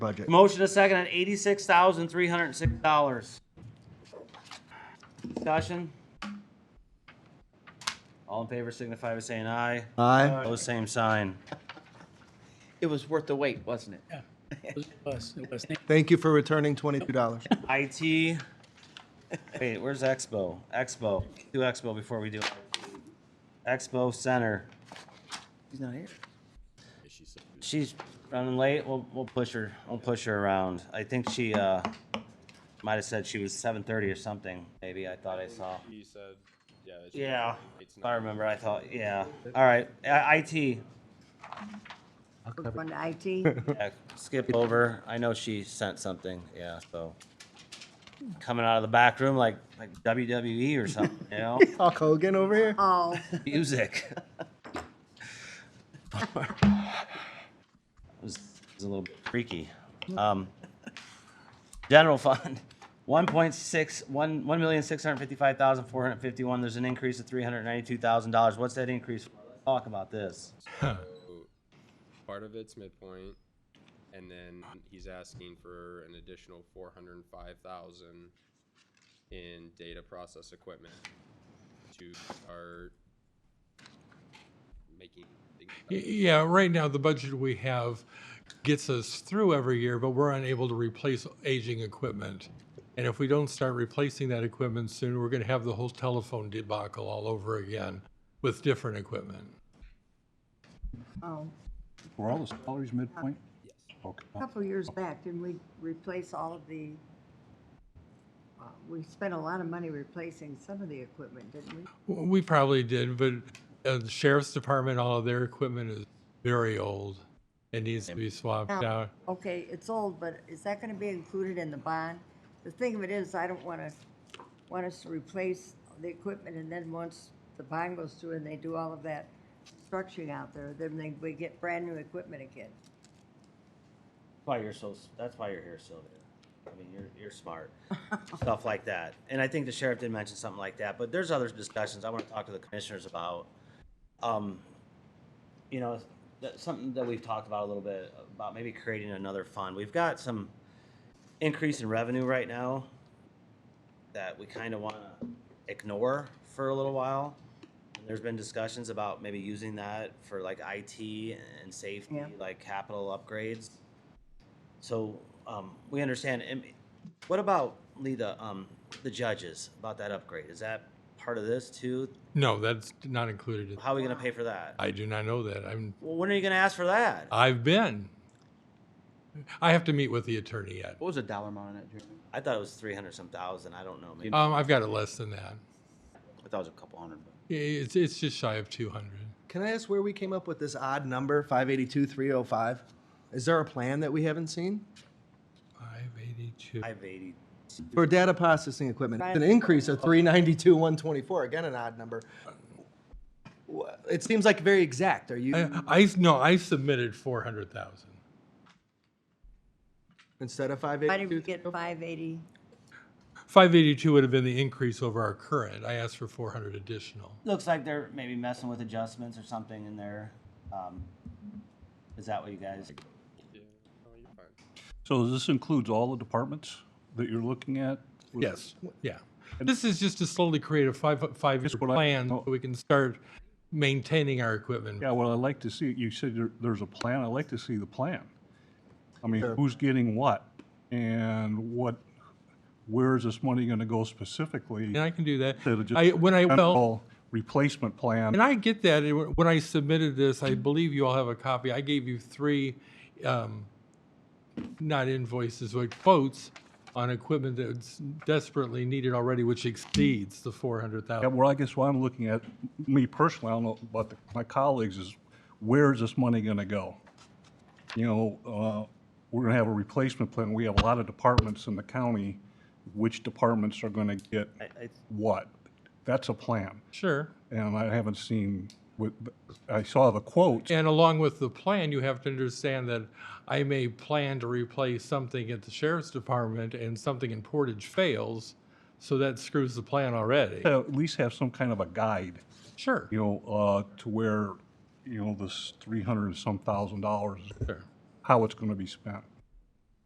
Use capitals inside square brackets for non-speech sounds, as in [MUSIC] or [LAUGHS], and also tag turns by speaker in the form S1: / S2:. S1: budget.
S2: Motion a second on eighty-six thousand, three hundred and six dollars. Discussion? All in favor signify by saying aye.
S1: Aye.
S2: Opposed, same sign.
S3: It was worth the wait, wasn't it?
S4: It was- it was, it was. Thank
S1: Thank you for returning twenty-two dollars.
S2: IT, wait, where's Expo? Expo, do Expo before we do. it. Expo Center,
S3: He's not here.
S2: she's running late, we'll, we'll push her, we'll push her around. I think she, uh, might have said she was seven thirty or something, maybe, I thought I saw.
S5: He said, yeah. it's-
S2: Yeah,
S5: It's
S2: I
S5: not.
S2: remember, I thought, yeah, all right, I- IT,
S6: We're going to IT.
S2: Yeah, skip over, I know she sent something, yeah, so. Coming out of the back room like, like WWE or something, you know?
S1: Hulk Hogan over here.
S6: Oh,
S2: music. it, was, it was a little bit freaky. Um, general fund, [LAUGHS] one point six one one million six hundred fifty five thousand four hundred fifty one. There's an increase of three hundred ninety two thousand dollars. What's that increase? For? Let's talk about this.
S5: Part of it's midpoint, and then he's asking for an additional four hundred and five thousand in data process equipment to start making. things
S7: Y-
S5: better.
S7: Yeah, right now, the budget we have gets us through every year, but we're unable to replace aging equipment. And if we don't start replacing that equipment soon, we're going to have the whole telephone debacle all over again with different equipment.
S6: oh.
S8: Were all the salaries midpoint?
S6: A
S8: Okay.
S6: couple years back, didn't we replace all of the, uh, we spent a lot of money replacing some of the equipment, didn't we?
S7: W- We probably did, but uh, the sheriff's department, all of their equipment is very old. It needs to be swapped
S6: Now,
S7: out.
S6: Okay, it's old, but is that gonna be included in the bond? The thing of it is, I don't wanna, want us to replace the equipment, and then once the bond goes through and they do all of that structuring out there, then they, we get brand-new equipment again.
S2: That's why you're so. That's why you're here, Sylvia. I mean, you're you're smart, [LAUGHS] stuff like that. And I think the sheriff did mention something like that. But there's other discussions I want to talk to the commissioners about. Um, you know, that, something that we've talked about a little bit about maybe creating another fund. We've got some increase in revenue right now that we kind of want to ignore for a little while. And there's been discussions about maybe using that for like IT and safety,
S6: Yeah.
S2: like capital upgrades. So um, we understand. And what about Lee, the um, the judges about that upgrade? Is that part of this too?
S7: No, that's not included.
S2: How are we going to pay for that?
S7: I do not know that. I'm,
S2: Well, when are you going to ask for that?
S7: I've been. I have to meet with the attorney yet.
S3: What was the dollar amount on that, Jeremy?
S2: I thought it was three hundred some thousand. I don't know. Maybe
S7: Um, I've got it less than that.
S3: I thought it was a couple hundred. but-
S7: I- It's, it's just shy of 200.
S1: Can I ask where we came up with this odd number, five eighty-two, three oh five? Is there a plan that we haven't seen?
S7: 582.
S2: five eighty.
S1: For data processing equipment, an increase of three ninety-two, one twenty-four, again an odd number. Wha- It seems like very exact. Are you,
S7: I, I, no, I submitted 400,000.
S1: instead of five
S6: Why did we
S1: eighty-two?
S6: get five eighty?
S7: 582 would have been the increase over our current. I asked for 400 additional.
S2: Looks like they're maybe messing with adjustments or something in there. Um, is that what you guys?
S5: Yeah, no, you're fine.
S8: So this includes all the departments that you're looking at? with-
S7: Yes, yeah. This is just to slowly create a five, five-year
S8: Just what I-
S7: plan so we can start maintaining our equipment.
S8: Yeah, well, I'd like to see, you said there, there's a plan, I'd like to see the plan. I mean, who's getting what? And what, where is this money gonna go specifically?
S7: And I can do that.
S8: Instead of just
S7: I, when I, well.
S8: general Replacement plan.
S7: And I get that. And wh- When I submitted this, I believe you all have a copy. I gave you three, um, not invoices, but quotes on equipment that's desperately needed already, which exceeds the four hundred
S8: Yeah,
S7: thousand.
S8: well, I guess what I'm looking at, me personally, I don't know about the- my colleagues, is where is this money going to go? You know, uh, we're going to have a replacement plan. We have a lot of departments in the county. Which departments are going to get
S2: I,
S8: what? That's a plan.
S7: Sure.
S8: And I haven't seen, what- I saw the quotes.
S7: And along with the plan, you have to understand that I may plan to replace something at the sheriff's department and something in Portage fails, so that screws the plan already.
S8: At least have some kind of a guide,
S7: Sure.
S8: you know, uh, to where, you know, this 300 and some thousand dollars,
S7: Sure.
S8: how it's going to be spent.